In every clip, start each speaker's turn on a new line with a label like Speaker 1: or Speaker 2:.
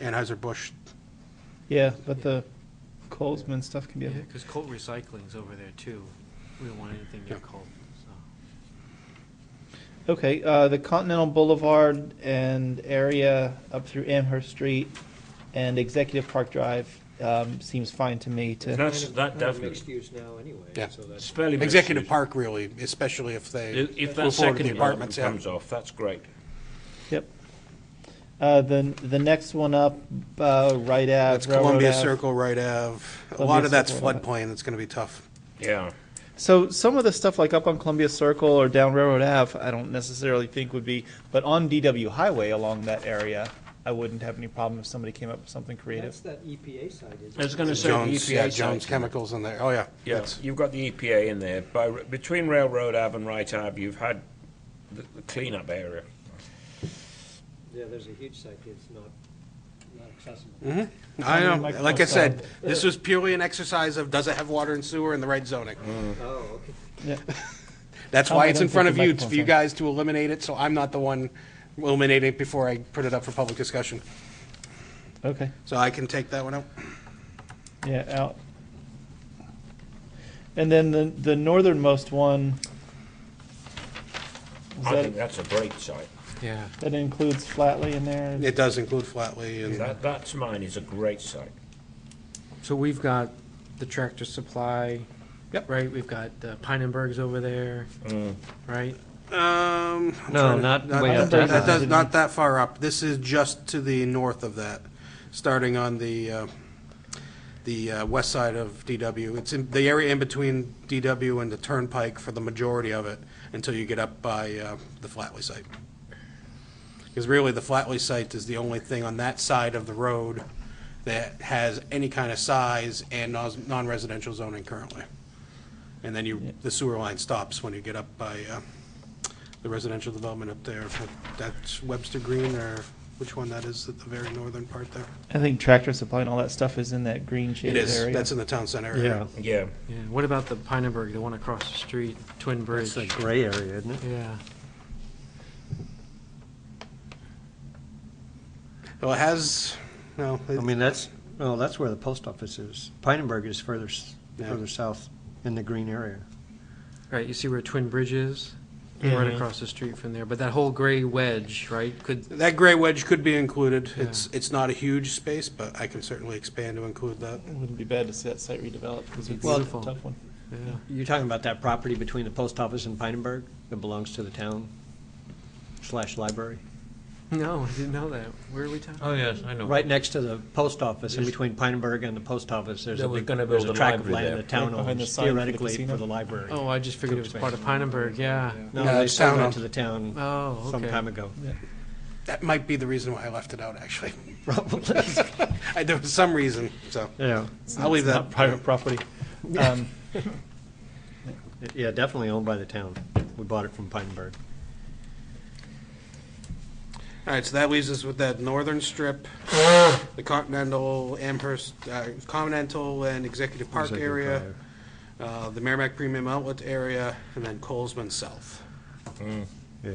Speaker 1: Anheuser-Busch.
Speaker 2: Yeah, but the Colesman stuff can be,
Speaker 3: Yeah,
Speaker 2: a bit-
Speaker 3: because Colt Recycling's over there too. We don't want anything near
Speaker 1: Yeah.
Speaker 3: Colt, so.
Speaker 2: okay, uh, the Continental Boulevard and area up through Amherst Street and Executive Park Drive, um, seems fine to me to.
Speaker 4: That's-
Speaker 5: Kind of-
Speaker 4: that
Speaker 5: kind of
Speaker 4: definitely-
Speaker 5: Mixed use now anyway,
Speaker 1: Yeah.
Speaker 5: so
Speaker 4: It's
Speaker 5: that's,
Speaker 4: fairly. mixed
Speaker 1: Executive
Speaker 4: use.
Speaker 1: Park, really, especially if they.
Speaker 4: If
Speaker 1: move
Speaker 4: if that
Speaker 1: forward with
Speaker 4: second
Speaker 1: the
Speaker 4: apartment
Speaker 1: apartments, yeah.
Speaker 4: comes off, that's great.
Speaker 2: Yep. Uh, the, the next one up, uh, right
Speaker 1: That's
Speaker 2: at Railroad
Speaker 1: Columbia
Speaker 2: Ave.
Speaker 1: Circle, right Ave. A
Speaker 2: Columbia
Speaker 1: lot of that's
Speaker 2: Circle, right.
Speaker 1: floodplain, that's gonna be tough.
Speaker 4: Yeah.
Speaker 2: So some of the stuff like up on Columbia Circle or down Railroad Ave, I don't necessarily think would be, but on DW Highway along that area, I wouldn't have any problem if somebody came up with something creative.
Speaker 5: that's that EPA side, isn't
Speaker 4: I was
Speaker 5: it?
Speaker 4: going to say the E
Speaker 1: Jones,
Speaker 2: E
Speaker 1: yeah,
Speaker 4: EPA
Speaker 1: Jones
Speaker 4: site.
Speaker 1: Chemicals in there, oh, yeah.
Speaker 4: Yeah,
Speaker 1: That's-
Speaker 4: you've got the EPA in there. By, between Railroad Ave and Wright Ave, you've had the the cleanup area.
Speaker 5: Yeah, there's a huge site that's not, not accessible.
Speaker 1: Mhm. I
Speaker 2: How
Speaker 1: know,
Speaker 2: many microphones
Speaker 1: like I said,
Speaker 2: are
Speaker 1: this was purely an exercise of, does it have water and sewer in the right zoning?
Speaker 2: Mm.
Speaker 5: Oh, okay.
Speaker 2: Yeah.
Speaker 1: That's
Speaker 2: Tom,
Speaker 1: why
Speaker 2: I
Speaker 1: it's in
Speaker 2: don't
Speaker 1: front
Speaker 2: think
Speaker 1: of
Speaker 2: the
Speaker 1: you, it's for
Speaker 2: microphone's
Speaker 1: you
Speaker 2: on.
Speaker 1: guys to eliminate it, so I'm not the one eliminating it before I put it up for public discussion.
Speaker 2: Okay,
Speaker 1: So I can take that one out.
Speaker 2: yeah, out. And then the, the northernmost one. is
Speaker 4: I
Speaker 2: that,
Speaker 4: think that's a great site.
Speaker 1: Yeah.
Speaker 2: that includes Flatley in there?
Speaker 1: It does include Flatley and,
Speaker 4: That, that's mine, is a great site.
Speaker 3: So we've got the Tractor Supply.
Speaker 1: Yep.
Speaker 3: Right, we've got uh, Pinenberg's over there, right?
Speaker 1: um. I'm
Speaker 5: No,
Speaker 1: trying to-
Speaker 5: not way
Speaker 2: up that
Speaker 1: That
Speaker 2: high.
Speaker 1: does, not that far up. This is just to the north of that, starting on the, uh, the uh, west side of DW. It's in, the area in between DW and the Turnpike for the majority of it, until you get up by, uh, the Flatley site. Because really, the Flatley site is the only thing on that side of the road that has any kind of size and nos- non-residential zoning currently. And then you, the sewer line stops when you get up by uh, the residential development up there. That's Webster Green, or which one that is at the very northern part there?
Speaker 2: I think tractor supply and all that stuff is in that green
Speaker 1: It
Speaker 2: shaded
Speaker 1: is,
Speaker 2: area.
Speaker 1: that's in the town center area.
Speaker 4: Yeah.
Speaker 3: Yeah, what about the Pinenberg, the one across the street, Twin Bridge?
Speaker 5: It's a gray area, isn't it?
Speaker 3: Yeah,
Speaker 1: Well, it has, no,
Speaker 5: I
Speaker 1: it-
Speaker 5: mean, that's, well, that's where the post office is. Pinenberg is further, s-
Speaker 1: Yeah.
Speaker 5: further south in the green area.
Speaker 3: right, you see where Twin Bridge is? Right across the street from there, but that whole gray wedge, right, could,
Speaker 1: that gray wedge could be included. It's, it's not a huge space, but I can certainly expand to include that.
Speaker 2: It Wouldn't be bad to see that site redeveloped because it's
Speaker 3: Well-
Speaker 2: a tough one.
Speaker 3: yeah.
Speaker 5: You're talking about that property between the post office and Pinenberg that belongs to the town slash library?
Speaker 3: No, I didn't know that. Where are we talking?
Speaker 6: Oh, yes, I know.
Speaker 5: Right next to the post office, in between Pinenberg and the post office, there's a
Speaker 6: They were
Speaker 5: big,
Speaker 6: gonna
Speaker 5: there's
Speaker 6: build
Speaker 5: a
Speaker 6: a
Speaker 5: tract of
Speaker 6: library
Speaker 5: land the
Speaker 6: there.
Speaker 5: town
Speaker 2: Right behind the
Speaker 5: owns
Speaker 2: sign for the
Speaker 5: theoretically
Speaker 2: casino?
Speaker 5: for the library.
Speaker 3: Oh, I just figured it was part of Pinenberg, yeah.
Speaker 5: No,
Speaker 1: No,
Speaker 5: they
Speaker 1: it's
Speaker 5: sold
Speaker 1: town
Speaker 5: that
Speaker 1: owned.
Speaker 5: to the town
Speaker 3: Oh, okay.
Speaker 5: some time ago,
Speaker 1: That might be the reason why I left it out, actually.
Speaker 5: probably.
Speaker 1: I- There was some reason, so
Speaker 5: Yeah,
Speaker 1: I'll leave
Speaker 2: It's
Speaker 1: that.
Speaker 2: not Private property. Um,
Speaker 5: yeah, definitely owned by the town. We bought it from Pinenberg.
Speaker 1: All right, so that leaves us with that northern strip, the Continental, Amherst, uh, Continental and Executive Park
Speaker 5: Executive
Speaker 1: area,
Speaker 5: Drive.
Speaker 1: uh, the Merrimack Premium Outlet area, and then Colesman South.
Speaker 5: Yeah.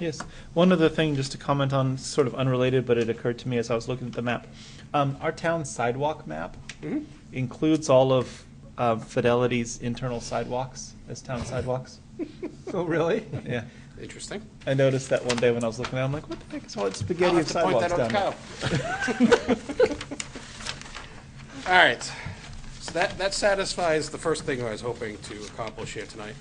Speaker 2: Yes. One other thing, just to comment on, sort of unrelated, but it occurred to me as I was looking at the map. Um, our town sidewalk map
Speaker 1: Mm-hmm.
Speaker 2: includes all of uh, Fidelity's internal sidewalks as town sidewalks.
Speaker 5: Oh, really?
Speaker 1: Hmm.
Speaker 2: Yeah.
Speaker 1: Interesting.
Speaker 2: I noticed that one day when I was looking at it. I'm like, what the heck is all that spaghetti of sidewalks down there?
Speaker 1: All right, so that, that satisfies the first thing I was hoping to accomplish here tonight.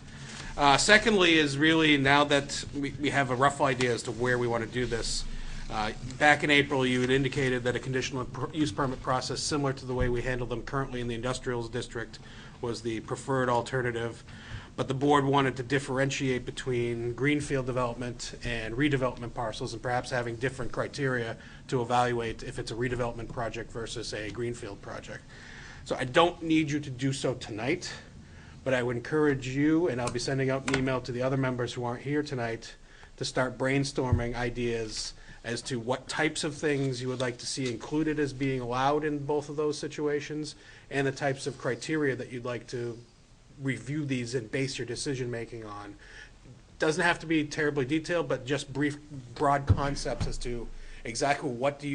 Speaker 1: Uh, Secondly is really now that we, we have a rough idea as to where we want to do this. uh, Back in April, you had indicated that a conditional per- use permit process similar to the way we handle them currently in the industrials district was the preferred alternative. But the board wanted to differentiate between greenfield development and redevelopment parcels and perhaps having different criteria to evaluate if it's a redevelopment project versus a greenfield project. So I don't need you to do so tonight, but I would encourage you, and I'll be sending out an email to the other members who aren't here tonight, to start brainstorming ideas as to what types of things you would like to see included as being allowed in both of those situations, and the types of criteria that you'd like to review these and base your decision-making on. Doesn't have to be terribly detailed, but just brief, broad concepts as to exactly what do you